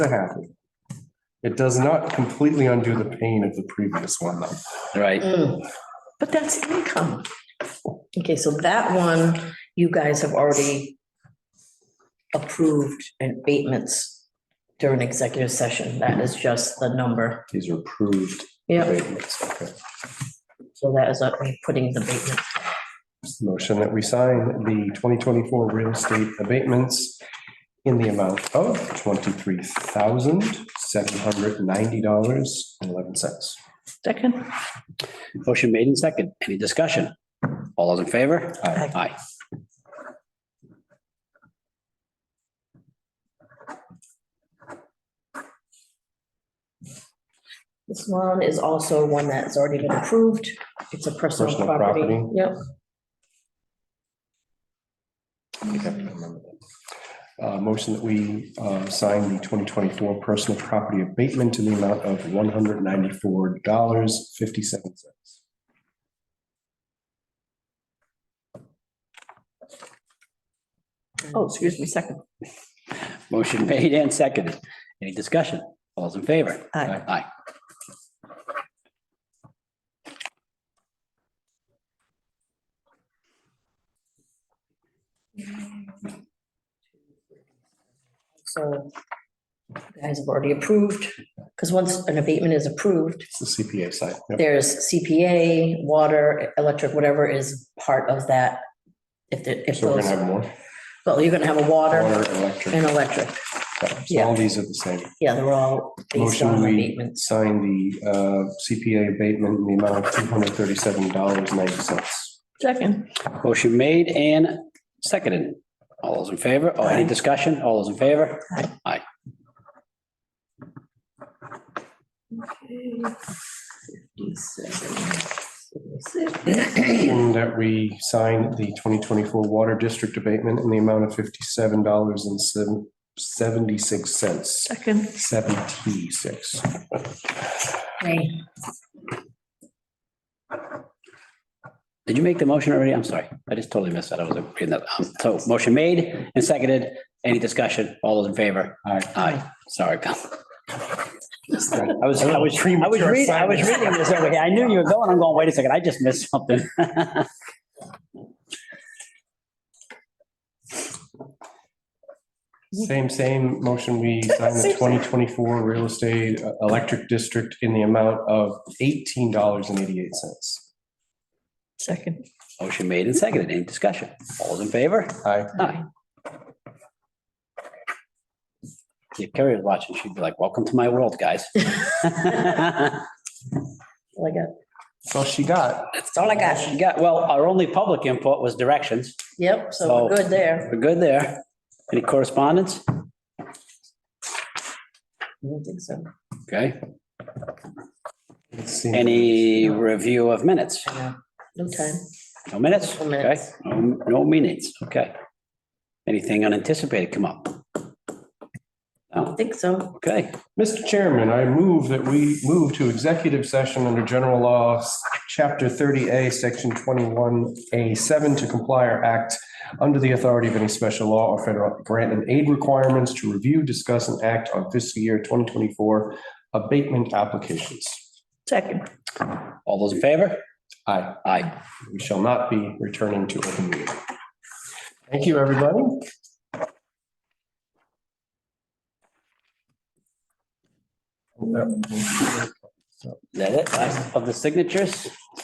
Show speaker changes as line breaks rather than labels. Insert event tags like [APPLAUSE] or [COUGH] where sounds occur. to happen. It does not completely undo the pain of the previous one, though.
right?
Mm. But that's income. Okay, so that one, you guys have already approved in abatements during executive session. That is just the number.
These are approved.
Yep.
abatements. Okay.
So that is, uh, we're putting the abatement.
Motion that we sign the twenty twenty-four real estate abatements in the amount of twenty-three thousand, seven hundred ninety dollars and eleven cents.
Second.
Motion made in second. Any discussion? All those in favor?
Aye.
Aye.
This one is also one that's already been approved. It's a personal
Personal
property.
property.
Yep.
I think I remember that. Uh, motion that we, uh, sign the twenty twenty-four personal property abatement in the amount of one hundred ninety-four dollars, fifty-seven cents.
Oh, excuse me, second.
Motion [LAUGHS] made and seconded. Any discussion? All those in favor?
Aye.
Aye.
So you guys have already approved, because once an abatement is approved,
It's the CPA side. Yep.
there's CPA, water, electric, whatever is part of that. If, the- if
So we're
those,
gonna have more.
well, you're gonna have a water
Water, electric.
and electric.
So all these are the same.
Yeah, they're all based
Motion,
on
we
abatements.
sign the uh, CPA abatement in the amount of two hundred thirty-seven dollars ninety cents.
Second.
Motion made and seconded. All those in favor? Oh, any discussion? All those in favor?
And that we sign the twenty twenty-four water district abatement in the amount of fifty-seven dollars and seventy-six cents.
Second.
Seventy-six.
Okay.
Did you make the motion already? I'm sorry. I just totally missed that. I was reading that. Um, So motion made and seconded. Any discussion? All those in favor?
Aye.
Aye. Sorry.
[LAUGHS]
Cal. I was, I was, I was
Premature
reading, I was
silence.
reading this over here. I knew you were going. I'm going, wait a second. I just missed something. [LAUGHS]
Same, same motion. We sign the twenty twenty-four real estate uh, electric district in the amount of eighteen dollars and eighty-eight cents.
Second.
Motion made and seconded. Any discussion? All those in favor?
Aye.
Aye. If Carrie was watching, she'd be like, welcome to my world, guys. [LAUGHS]
Like a,
That's all she got.
that's all I got.
She got, well, our only public input was directions.
Yep, so we're
So-
good there.
We're good there. Any correspondence?
I don't think so.
Okay.
Let's see.
Any review of minutes?
I know. No time.
No minutes?
No
Okay.
minutes.
No no minutes, okay. Anything unanticipated come up?
I
No,
think so.
okay.
Mr. Chairman, I move that we move to executive session under general law, chapter thirty A, section twenty-one A seven to comply or act under the authority of any special law or federal grant and aid requirements to review, discuss, and act on fiscal year twenty twenty-four abatement applications.
Second.
All those in favor?
Aye,
Aye.
we shall not be returning to open meeting. Thank you, everybody.
Is that it? Last Of the signatures?